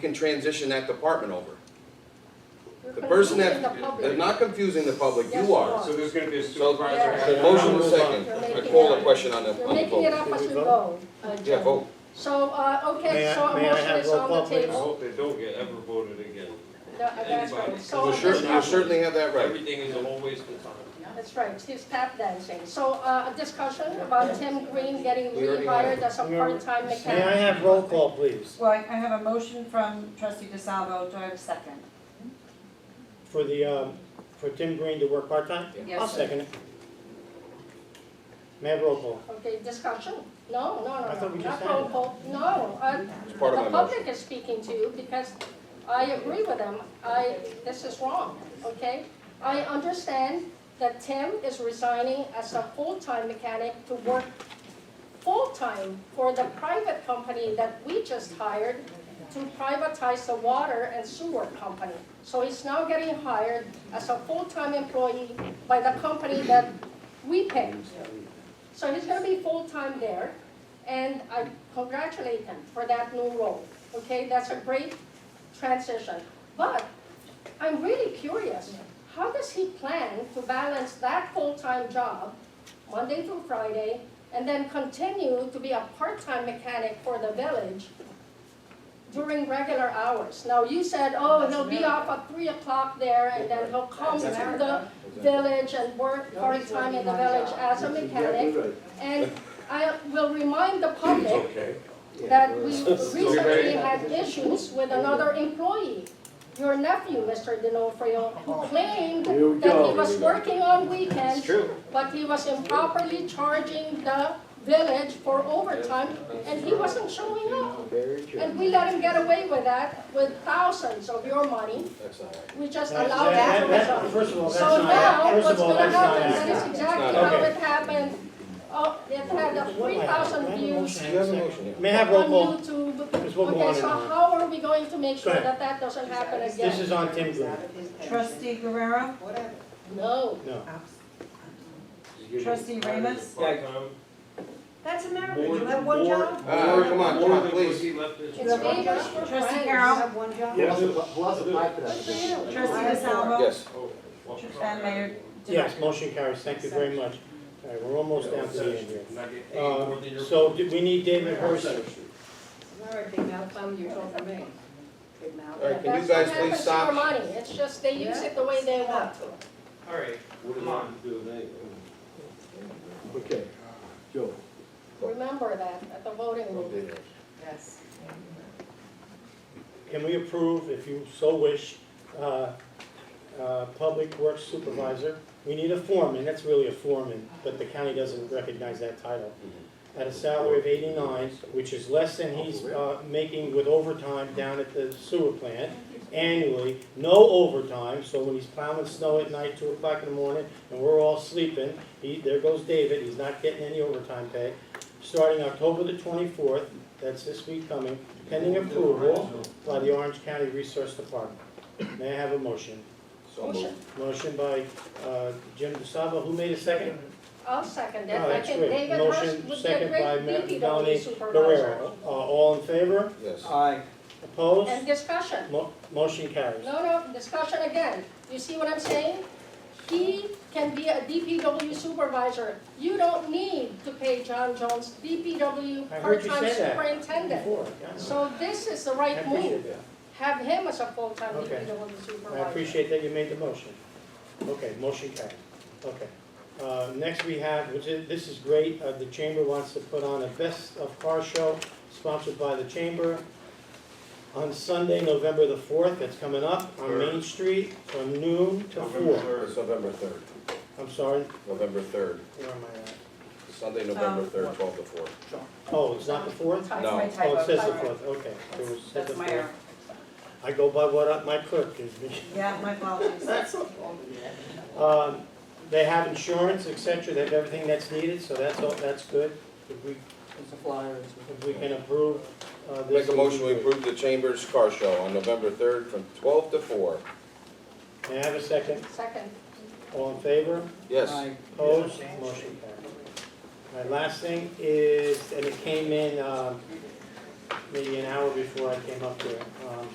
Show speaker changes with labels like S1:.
S1: can transition that department over.
S2: You're
S1: The person
S2: confusing
S1: that-
S2: the public.
S1: They're not confusing the public,
S2: Yes,
S1: you
S2: you
S1: are.
S2: are.
S3: So there's gonna be a
S2: Yeah.
S3: supervisor.
S1: The motion was second,
S2: You're making
S1: I call
S2: it
S1: a
S2: up.
S1: question on the,
S2: You're
S1: on the
S2: making it
S1: vote.
S2: up
S4: Did
S2: as
S4: we
S2: we
S4: vote?
S2: go. uh,
S1: Yeah,
S2: Jim.
S1: vote.
S2: So, uh,
S4: May
S2: okay,
S4: I-
S2: so a
S4: may I
S2: motion
S4: have
S2: is
S4: roll
S2: on
S4: call,
S2: the
S4: please?
S3: I
S2: table.
S3: hope they don't get ever voted again.
S2: No, uh, That's right.
S3: Anybody.
S2: So
S1: You
S2: on
S3: There's a
S1: certainly, you
S2: discussion,
S1: certainly have that right.
S3: Everything is a whole waste of time.
S2: that's right, Steve's tap dancing. So uh, a discussion about Tim Green getting
S1: We already had
S2: rehired as a
S4: We already-
S2: part-time
S4: May I
S2: mechanic.
S4: have roll call, please,
S5: Well, I I have a motion from trustee DeSalvo, do I have a second?
S4: for the, um, for Tim Green to work part-time? I'll
S5: Yes.
S4: second it. May I have roll call?
S2: Okay, discussion? No, no,
S4: I
S2: no,
S4: thought
S2: no,
S4: we
S2: not
S4: just
S2: roll
S4: had it.
S2: call. No, uh,
S1: It's part
S2: the
S1: of my motion.
S2: public is speaking to you because I agree with them. I, this is wrong, okay? I understand that Tim is resigning as a full-time mechanic to work full-time for the private company that we just hired to privatize the water and sewer company. So he's now getting hired as a full-time employee by the company that we pay. So he's gonna be full-time there, and I congratulate him for that new role, okay? That's a great transition. But I'm really curious, how does he plan to balance that full-time job, Monday through Friday, and then continue to be a part-time mechanic for the village during regular hours? Now, you said, oh, he'll be off at three o'clock there, and then he'll come to the village and work part-time in the village as a mechanic. And I will remind the public
S3: Okay.
S2: that we
S3: very-
S2: recently had issues with another employee, your nephew, Mr. Denofrio, who claimed that
S6: Here we
S2: he
S6: go.
S2: was working on weekends,
S3: True.
S2: but he was improperly charging the village for overtime, and he wasn't showing up.
S6: Very true.
S2: And we let him get away with that with thousands of your money.
S1: That's not right.
S2: We just
S4: That-
S2: allowed
S4: that-
S2: that to
S4: that-
S2: result.
S4: First of all, that's
S2: So
S4: not,
S2: now,
S4: first
S2: what's
S4: of all,
S2: gonna
S4: that's not
S2: happen, that is
S4: accurate.
S2: exactly
S4: not
S2: how
S4: accurate.
S2: it happened. Oh, it had a three thousand views
S1: You have a motion here.
S4: May I
S2: on
S4: have roll call?
S2: YouTube.
S4: Because we'll go on
S2: Okay,
S4: and
S2: so
S4: on.
S2: how are we going to make sure
S4: Go ahead.
S2: that that doesn't happen
S4: This
S2: again?
S4: is on Tim Green,
S5: Trustee Guerrero,
S2: No.
S4: no.
S5: Trustee Remus?
S7: That's America,
S3: More-
S7: you have one
S3: more-
S7: job?
S1: Ah,
S3: more-
S1: come on,
S3: more
S1: come on,
S3: than
S1: please.
S3: what he left his-
S2: It's neighbors for
S5: Trustee
S7: You
S5: Carol?
S2: friends.
S7: have one job?
S6: Plus the, plus the pipe that I
S2: Good for you.
S5: Trustee DeSalvo?
S1: Yes,
S3: Oh, well.
S5: And Mayor?
S4: Yes, motion carries, thank you very much. All right, we're almost down to the end here.
S3: Not get paid more than
S4: Uh,
S3: your-
S4: So do we need David Hurst.
S7: All right, big mouth, um, you're talking to me. Big mouth.
S1: All right, can you
S2: That's what
S1: guys please
S2: happens to
S1: stop?
S2: your money. It's just they use it the way they want to.
S3: All right,
S6: What
S3: come
S6: am I
S3: on.
S6: Okay, Joe.
S2: Remember that at the voting room.
S7: Yes.
S4: Can we approve, if you so wish, uh, uh, Public Works Supervisor? We need a foreman, that's really a foreman, but the county doesn't recognize that title. At a salary of 89, which is less than he's uh, making with overtime down at the sewer plant annually, no overtime, so when he's plowing snow at night, 2 o'clock in the morning, and we're all sleeping, he, there goes David, he's not getting any overtime pay. Starting October the 24th, that's this week coming, pending approval by the Orange County Resource Department. May I have a motion?
S1: so moved.
S4: Motion by uh, Jim DeSalvo, who made a second?
S2: I'll second it.
S4: Oh,
S2: I
S4: that's
S2: think
S4: great.
S2: David
S4: Motion
S2: Hurst would be a
S4: second by Ma-
S2: great
S4: Melanie
S2: DPW supervisor.
S4: Guerrero. Uh, All in favor?
S1: Yes.
S6: Aye.
S2: And
S4: Opposed?
S2: discussion.
S4: Mo- Motion carries.
S2: No, no, discussion again. You see what I'm saying? He can be a DPW supervisor. You don't need to pay John Jones DPW
S4: I heard you
S2: part-time
S4: say that
S2: superintendent.
S4: Before, yeah.
S2: So this is the
S4: I
S2: right
S4: appreciate
S2: move.
S4: that.
S2: Have him as a full-time
S4: Okay.
S2: DPW
S4: I
S2: supervisor.
S4: appreciate that you made the motion. Okay, motion carried. Okay. Uh, Next we have, which is, this is great, uh, the Chamber wants to put on a Best of Car Show sponsored by the Chamber on Sunday, November the 4th, that's coming up, on Main Street from noon to
S3: November
S4: 4.
S3: third.
S1: It's November third,
S4: I'm sorry,
S1: November third,
S4: where am I at?
S1: Sunday, November
S5: Um,
S1: third, twelve to four.
S4: Oh, it's not the 4th?
S5: That's
S1: No.
S5: my
S4: Oh, it
S5: typo,
S4: says the
S5: sorry.
S4: 4th, okay. It was- said the
S5: That's my
S4: 4th.
S5: error.
S4: I go by what I- my clerk gives me.
S5: Yeah, my apologies.
S4: Um, They have insurance, et cetera, they have everything that's needed, so that's, all. that's good. If we
S6: It's a flyer.
S4: If we can approve uh, this.
S1: Make a motion, we approve the Chambers Car Show on November third from twelve to four.
S4: May I have a second?
S2: Second.
S4: All in favor?
S1: Yes,
S4: Opposed? Motion carried. My last thing is, and it came in um, maybe an hour before I came up here, um,